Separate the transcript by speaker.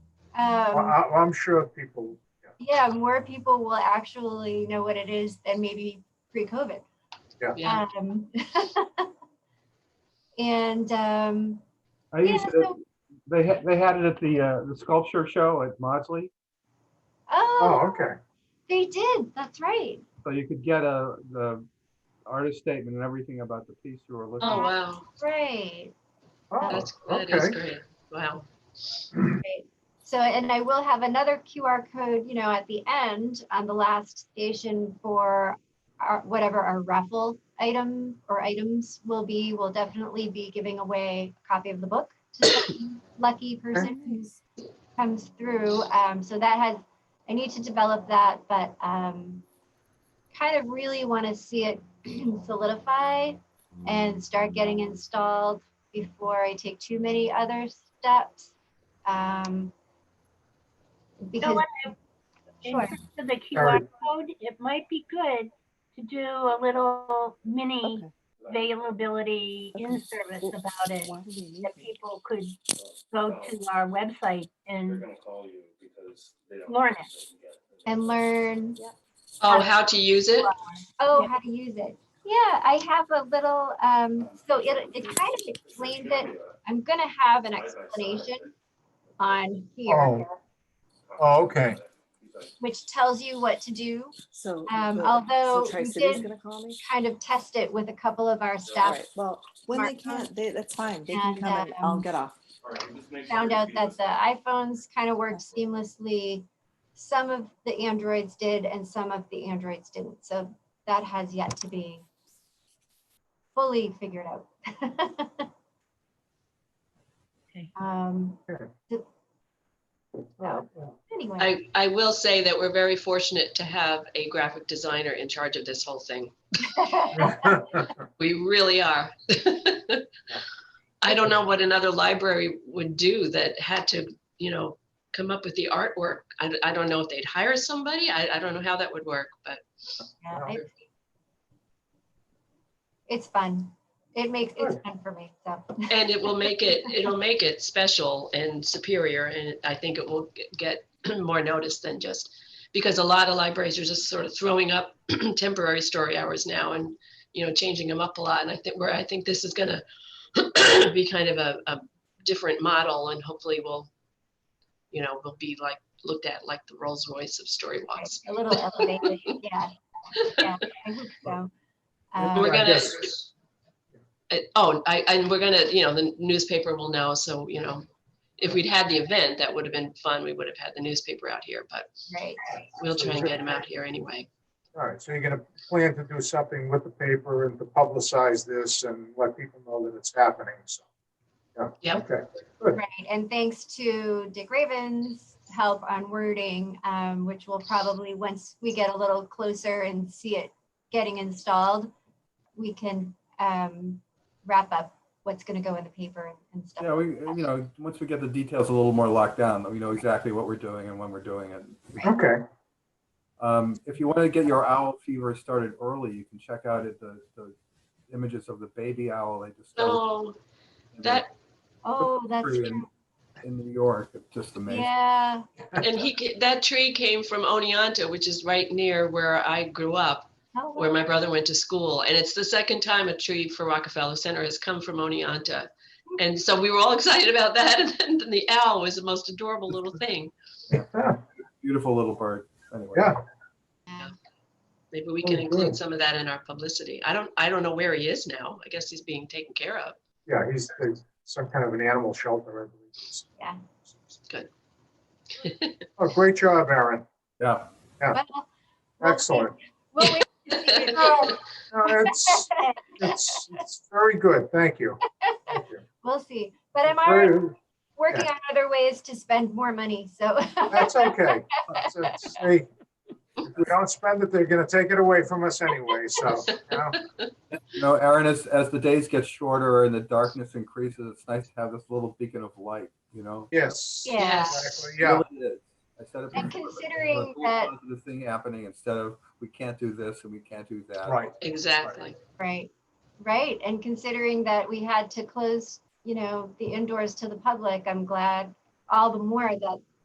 Speaker 1: Um,
Speaker 2: Well, I, I'm sure people,
Speaker 1: yeah, more people will actually know what it is than maybe pre-COVID.
Speaker 3: Yeah,
Speaker 1: Um, and um,
Speaker 4: I
Speaker 1: yeah,
Speaker 4: used to,
Speaker 1: so,
Speaker 4: they had, they had it at the, uh, the sculpture show at Maudsley.
Speaker 1: oh,
Speaker 2: oh, okay,
Speaker 1: they did. That's right.
Speaker 4: So you could get
Speaker 2: uh,
Speaker 4: a, the artist statement and everything about the piece you were looking
Speaker 3: oh,
Speaker 4: at.
Speaker 3: wow,
Speaker 1: Right.
Speaker 2: oh,
Speaker 3: that's, that is
Speaker 2: okay.
Speaker 3: great, wow.
Speaker 1: So, and I will have another QR code, you know, at the end on the last station for our, whatever our raffle item or items will be. We'll definitely be giving away a copy of the book to some lucky person who's comes through. Um, so that has, I need to develop that, but um, kind of really want to see it solidify and start getting installed before I take too many other steps. Um, because,
Speaker 5: what In
Speaker 1: sure,
Speaker 5: terms of the QR
Speaker 2: Sorry.
Speaker 5: code, it might be good to do a little mini availability
Speaker 6: Okay.
Speaker 5: in-service about it.
Speaker 6: Why do we need
Speaker 5: That people could go to our website
Speaker 7: They're
Speaker 5: and
Speaker 7: gonna call you because they don't.
Speaker 5: Learn it.
Speaker 1: and learn.
Speaker 3: Oh, how to use it?
Speaker 1: Oh,
Speaker 5: Yeah.
Speaker 1: how to use it. Yeah, I have a little, um, so it, it kind of explains it. I'm gonna have an explanation on here,
Speaker 2: Oh. Oh, okay.
Speaker 1: which tells you what to do.
Speaker 6: So.
Speaker 1: Um,
Speaker 6: the-
Speaker 1: although
Speaker 6: So
Speaker 1: we
Speaker 6: Tri-City's
Speaker 1: did-
Speaker 6: gonna call me?
Speaker 1: Kind of test it with a couple of our staff.
Speaker 6: Right, well, when they
Speaker 1: Mark on.
Speaker 6: can't, they, that's fine, they can
Speaker 1: And,
Speaker 6: come and I'll
Speaker 1: um,
Speaker 6: get off.
Speaker 1: Found out that the iPhones kind of worked seamlessly. Some of the Androids did and some of the Androids didn't. So that has yet to be fully figured out.
Speaker 5: Okay.
Speaker 1: Um,
Speaker 2: Okay.
Speaker 1: th- so, anyway.
Speaker 3: I, I will say that we're very fortunate to have a graphic designer in charge of this whole thing. We really are. I don't know what another library would do that had to, you know, come up with the artwork. I, I don't know if they'd hire somebody. I, I don't know how that would work, but
Speaker 1: Yeah,
Speaker 2: Wow.
Speaker 1: it's- It's fun. It makes, it's fun for me, so.
Speaker 3: and it will make it it'll make it special and superior and i think it will g- get more notice than just because a lot of libraries are just sort of throwing up temporary story hours now and you know changing them up a lot and i think where i think this is going to be kind of a, a different model and hopefully we'll you know we'll be like looked at like the rolls royce of story walks
Speaker 1: A little elevated, yeah. Yeah, I hope so. Um,
Speaker 3: We're
Speaker 2: I
Speaker 3: gonna-
Speaker 2: guess-
Speaker 3: Uh, oh I, and we're gonna you know the newspaper will know so you know if we'd had the event that would have been fun we would have had the newspaper out here but
Speaker 1: Right,
Speaker 3: We'll try and get them out here anyway.
Speaker 2: All right, so you're gonna plan to do something with the paper and to publicize this and let people know that it's happening, so.
Speaker 3: Yep.
Speaker 2: Okay,
Speaker 1: right. And thanks to Dick Raven's help on wording, um, which will probably, once we get a little closer and see it getting installed, we can, um, wrap up what's gonna go in the paper and stuff.
Speaker 4: Yeah, we, you know, once we get the details a little more locked down, we know exactly what we're doing and when we're doing it.
Speaker 2: okay,
Speaker 4: Um, if you want to get your owl fever started early, you can check out it, the, the images of the baby owl they discovered.
Speaker 3: Oh,
Speaker 4: in the-
Speaker 3: that,
Speaker 1: Oh, that's
Speaker 4: in-
Speaker 1: true.
Speaker 4: In New York, it's just amazing.
Speaker 1: Yeah,
Speaker 3: and he, ca- that tree came from Oneonta, which is right near where I grew up,
Speaker 1: Oh,
Speaker 3: where my brother went to school. And it's the second time a tree for Rockefeller Center has come from Oneonta. And so we were all excited about that. And then the owl was the most adorable little thing.
Speaker 4: Beautiful little bird, anyway.
Speaker 2: Yeah.
Speaker 3: Maybe we can
Speaker 2: Oh,
Speaker 3: include
Speaker 2: good.
Speaker 3: some of that in our publicity. I don't, I don't know where he is now. I guess he's being taken care of.
Speaker 2: yeah, he's he's some kind of an animal shelter, I believe.
Speaker 1: Yeah.
Speaker 3: Good.
Speaker 2: Oh, great job, Aaron,
Speaker 4: Yeah,
Speaker 1: well, we'll wait-
Speaker 2: excellent.
Speaker 1: We'll wait to see the results.
Speaker 2: No, It's, it's, it's very good, thank you. Thank you.
Speaker 1: We'll see, but I'm already
Speaker 2: Very-
Speaker 1: working on other ways to spend more money, so.
Speaker 2: That's okay. It's- it's- hey, If we don't spend it, they're gonna take it away from us anyway, so, you know,
Speaker 4: you know, Aaron, as, as the days get shorter and the darkness increases, it's nice to have this little beacon of light, you know?
Speaker 2: yes.
Speaker 1: Yeah.
Speaker 2: Exactly, yeah,
Speaker 4: Really is. I said it
Speaker 1: And
Speaker 4: before, but
Speaker 1: considering
Speaker 4: there's a whole
Speaker 1: that-
Speaker 4: positive Thing happening instead of, we can't do this and we can't do that.
Speaker 2: right.
Speaker 3: Exactly.
Speaker 1: Right, right, and considering that we had to close, you know, the indoors to the public, I'm glad all the more that